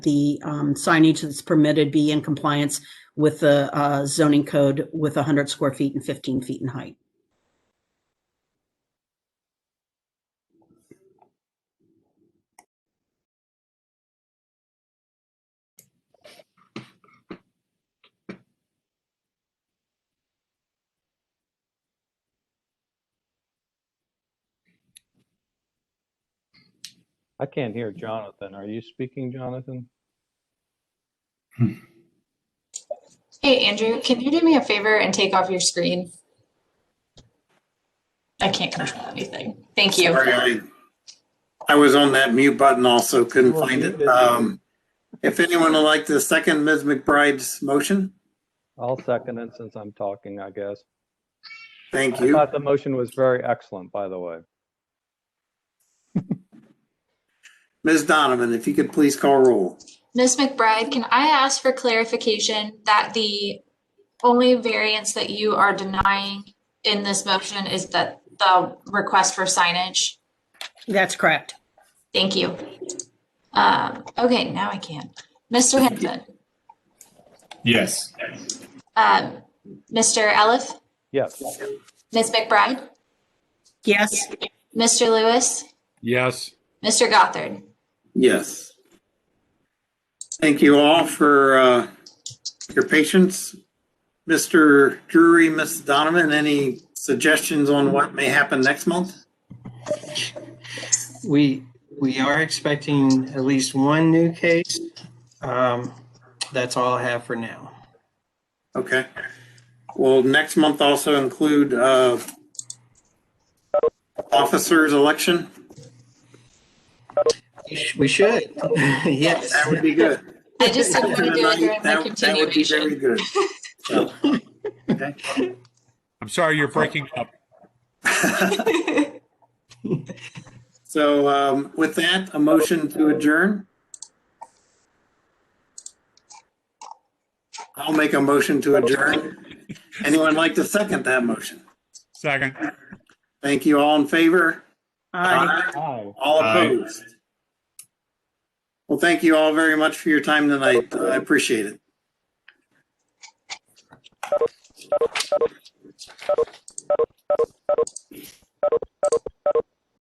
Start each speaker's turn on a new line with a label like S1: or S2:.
S1: the um, signage that's permitted be in compliance with the uh, zoning code with 100 square feet and 15 feet in height.
S2: I can't hear Jonathan. Are you speaking, Jonathan?
S3: Hey, Andrew, can you do me a favor and take off your screen? I can't control anything. Thank you.
S4: Sorry, I- I was on that mute button also, couldn't
S2: Well,
S4: find
S2: you
S4: it.
S2: did.
S4: Um, If anyone would like to second Ms. McBride's motion,
S2: I'll second it since I'm talking, I guess.
S4: thank
S2: I
S4: you.
S2: thought the motion was very excellent, by the way.
S4: Ms. Donovan, if you could please call roll.
S3: Ms. McBride, can I ask for clarification that the only variance that you are denying in this motion is that the request for signage?
S1: That's correct.
S3: Thank you. Um, okay, now I can. Mr. Henson,
S5: Yes.
S3: um, Mr. Eliff,
S2: Yes,
S3: Ms. McBride,
S1: Yes,
S3: Mr. Lewis,
S5: Yes.
S3: Mr. Gothard.
S4: Yes. Thank you all for uh, your patience. Mr. Drury, Ms. Donovan, any suggestions on what may happen next month?
S6: We, we are expecting at least one new case. Um, That's all I have for now.
S4: Okay. Will next month also include uh, officers' election?
S6: We sh- We should, yes.
S4: That would be good.
S3: I just didn't want to do it during my
S4: That- that would be very
S3: continuation.
S4: good. So, okay.
S5: I'm sorry you're breaking up.
S4: So um, with that, a motion to adjourn? I'll make a motion to adjourn. Anyone like to second that motion?
S5: Second.
S4: Thank you. All in favor?
S1: Aye.
S2: hi.
S4: All
S5: Aye.
S4: opposed? Well, thank you all very much for your time tonight. I appreciate it.